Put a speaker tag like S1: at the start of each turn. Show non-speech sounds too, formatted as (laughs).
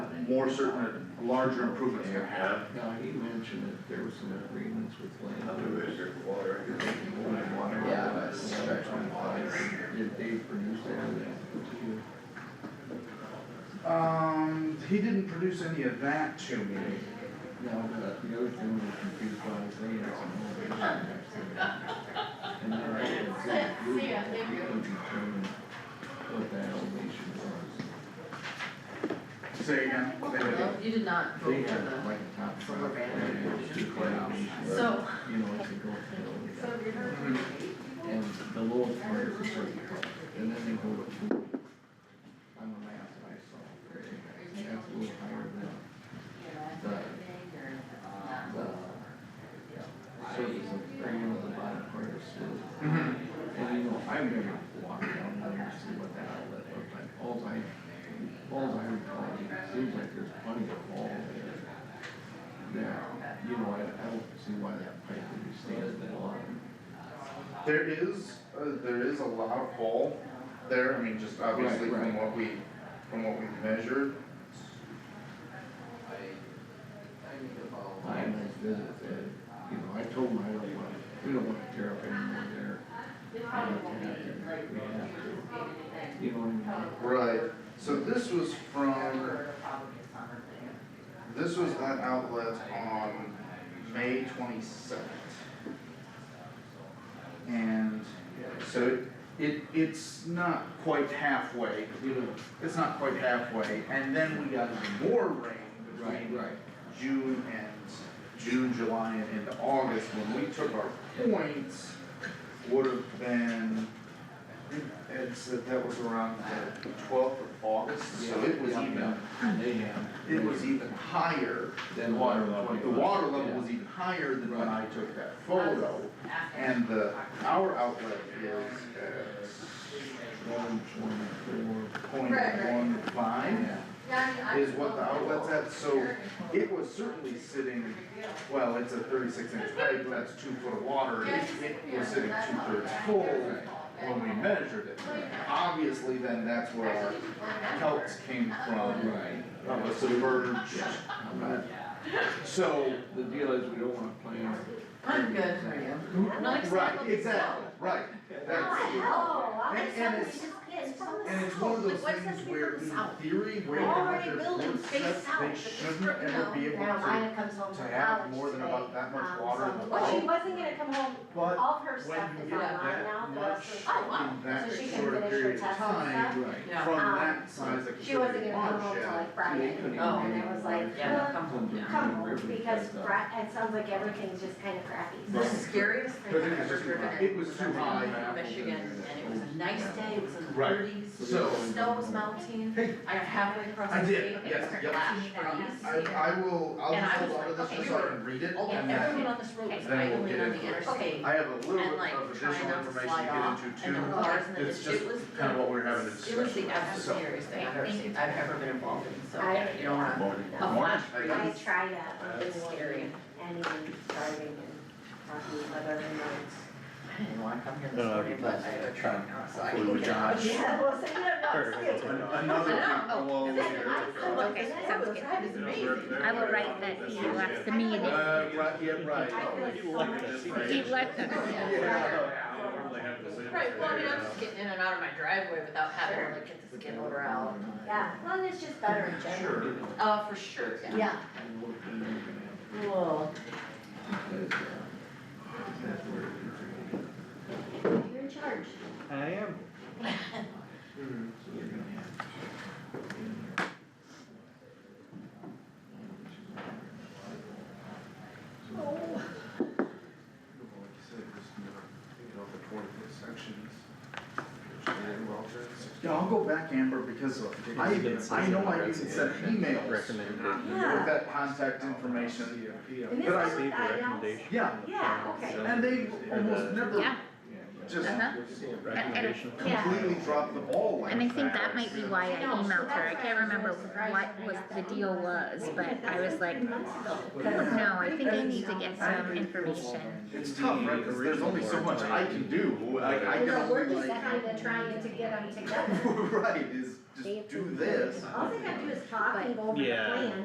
S1: more certain, larger improvements
S2: Yeah.
S1: can have.
S3: Now, he mentioned that there was some agreements with landowners.
S2: Yeah, but it's stretch my
S3: Did they produce anything?
S1: Um, he didn't produce any of that to me.
S3: No, but the other thing we're confused by is they had some elevation next to it. And then I had said, we
S4: See ya, thank you.
S3: could determine what that elevation was.
S1: Say again, what they did.
S4: You did not
S3: They
S4: vote for
S3: had
S4: the,
S3: like a top.
S4: for
S3: shelf,
S4: Urbana.
S3: and it was two elevation,
S4: so,
S3: You know, it's a gold
S4: so
S3: hill,
S4: have you heard?
S3: and the lowest part is a certain color, and then they go to two. On the map that I saw, and that's a little higher than the surface of, or you know, the bottom part is still.
S1: Mhm.
S3: And you know, I've never walked down there to see what that outlet looked like, alls I, alls I recall, it seems like there's plenty of wall there. That, you know, I, I don't see why that pipe would be staying at the bottom.
S1: There is, uh, there is a lot of hole there, I mean, just obviously
S3: Right, right.
S1: from what we, from what we measured.
S3: I nice visit that, you know, I told my own wife, we don't wanna tear up anymore there. We have to have it. We have to. You know what I mean?
S1: Right, so this was from, this was that outlet on May twenty-second. And, so it, it's not quite halfway,
S3: You know,
S1: it's not quite halfway, and then we got more rain
S3: right,
S1: between
S3: right,
S1: June and, June, July, and into August, when we took our points, would have been, I think Ed said that was around the twelfth of August, so
S3: Yeah,
S1: it was
S3: yeah,
S1: even,
S3: yeah. They have.
S1: it was even higher.
S3: Then
S1: than
S3: water
S1: what-
S3: level.
S1: The water
S3: Yeah.
S1: level was even higher than when I
S3: Right.
S1: took that photo, and the, our outlet is
S3: One twenty-four.
S1: at point one five.
S3: Yeah.
S1: is what the outlet's at, so it was certainly sitting, well, it's a thirty-six inch pipe, that's two foot of water, it, it was sitting two thirds full when we measured it. Obviously, then that's where our calcs came from,
S3: Right.
S1: of a submerged,
S3: I'm not-
S1: so,
S3: The deal is we don't wanna plan.
S4: I'm good for you. Nice to
S1: right,
S4: look
S1: exactly, right, that's.
S5: Wow,
S1: And- and
S5: somebody
S1: it's-
S5: just gets from the
S1: And it's
S5: south.
S1: one of those
S5: Like, what's that
S1: things
S5: thing
S1: where
S5: from
S1: in
S5: the south?
S1: theory, where they have
S5: Already
S1: their
S5: building
S1: roof
S5: face
S1: sets,
S5: south,
S1: they
S5: but it's
S1: shouldn't
S5: stripped
S1: ever
S5: down.
S1: be able to.
S5: Now, Maya comes home
S1: to
S5: from
S1: have
S5: college
S1: more than
S5: today,
S1: about that much
S5: um,
S1: water in
S5: so-
S1: the
S5: Well, she
S1: boat.
S5: wasn't gonna come home,
S1: But
S5: all of her
S1: when
S5: stuff
S1: you get
S5: is online now,
S1: that much
S5: the rest of.
S4: Oh, wow.
S1: in that
S5: So she can
S1: short a
S5: finish her
S1: period of
S5: tests and
S1: time,
S5: stuff.
S3: Right.
S4: Yeah.
S1: from
S5: Um,
S1: that size of
S5: She wasn't
S1: contributing
S5: gonna come home till
S1: watershed,
S5: like Friday,
S3: They couldn't
S4: Oh.
S5: and I was like,
S4: Yeah.
S5: "Well, come home, because Brad, it sounds like everything's just kinda crappy, so.
S4: The scariest thing
S1: But
S4: I've
S1: it was
S4: ever
S1: too
S4: driven
S1: high.
S4: in.
S1: It was too
S4: I
S1: high.
S4: in Michigan, and it was a nice day, it was in the
S1: Right.
S4: thirties,
S1: So-
S4: the snow was melting,
S1: Hey.
S4: I got halfway across
S1: I
S4: the
S1: did,
S4: state, and
S1: yes,
S4: it started
S1: yep.
S4: flash freeze.
S1: I, I will, I'll
S4: And I
S1: just
S4: was
S1: hold on to this
S4: like,
S1: just so
S4: okay,
S1: I can read it,
S4: Oh,
S1: and
S4: everyone
S1: then
S4: on this road was
S1: then we'll
S4: idling
S1: get
S4: on
S1: into
S4: the
S1: it.
S4: interstate,
S1: I have a little bit
S4: and like
S1: of
S4: trying
S1: additional
S4: not to
S1: information
S4: slide
S1: to
S4: off,
S1: get
S4: and
S1: into
S4: the
S1: too.
S4: cars and the,
S1: It's
S4: it was
S1: just kind of
S4: the,
S1: what we we're having a
S4: it was the
S1: discussion about, so.
S4: absolute scariest thing I've ever seen, I've ever been involved in, so,
S5: I-
S4: you don't wanna, a
S1: Morning.
S4: flash freeze.
S5: I uh, try to
S4: That's
S5: avoid
S4: scary.
S5: anyone starving um, and um, talking about other roads.
S4: I didn't wanna come here this
S6: No, no,
S4: morning, but I
S6: that's-
S4: had a truck, so I
S6: Well,
S4: can get out.
S6: Josh.
S5: Yeah, well, so you have
S6: Sure,
S5: not
S6: that's
S5: seen.
S6: fine.
S1: Another
S4: I
S1: thing
S4: know.
S1: below
S4: Oh,
S1: here.
S7: I will write that to you after the meeting.
S1: Uh, right, yeah, right.
S5: I feel so much.
S7: He left it.
S4: Right, well, I mean, I'm just getting in and out of my driveway without having to like get the skin odor out.
S5: Yeah, well, it's just better in general.
S3: Sure.
S4: Uh, for sure, yeah.
S5: Yeah.
S3: And what they're gonna have.
S4: Whoa.
S3: Because, uh, that's where it gets really
S5: You're in charge.
S6: I am.
S3: good. So they're gonna have to put in there. So,
S1: Like you said, just, you know, you know, the twenty foot sections. which they did well for. Yeah, I'll go back, Amber, because I, I know I even sent emails with
S6: Recommended.
S5: Yeah.
S1: that contact information.
S5: And this
S1: But I
S5: is what
S6: Received a
S5: I asked.
S6: recommendation.
S1: Yeah,
S5: Yeah, okay.
S1: and they almost never
S7: Yeah.
S3: yeah, but-
S1: just,
S7: Uh-huh.
S1: we're seeing
S7: Recommendation.
S5: Yeah.
S1: completely dropped the ball like
S7: And I think that
S1: it's
S7: might be
S1: just-
S7: why I
S5: No, so
S7: emailed her, I
S5: that's
S7: can't
S5: why
S7: remember
S5: she was right.
S7: what was, the deal was, but I was like,
S5: Because
S7: no, I think I need to get some information.
S1: It's tough, right, cause there's only so much I can do, I, I can
S5: No, we're
S1: only
S5: just
S1: like,
S5: kinda trying to get
S1: (laughs)
S5: them together.
S1: right, is
S5: They
S1: just do
S5: approve
S1: this.
S5: All they gotta do is talk and go over the
S6: Yeah.
S5: plan.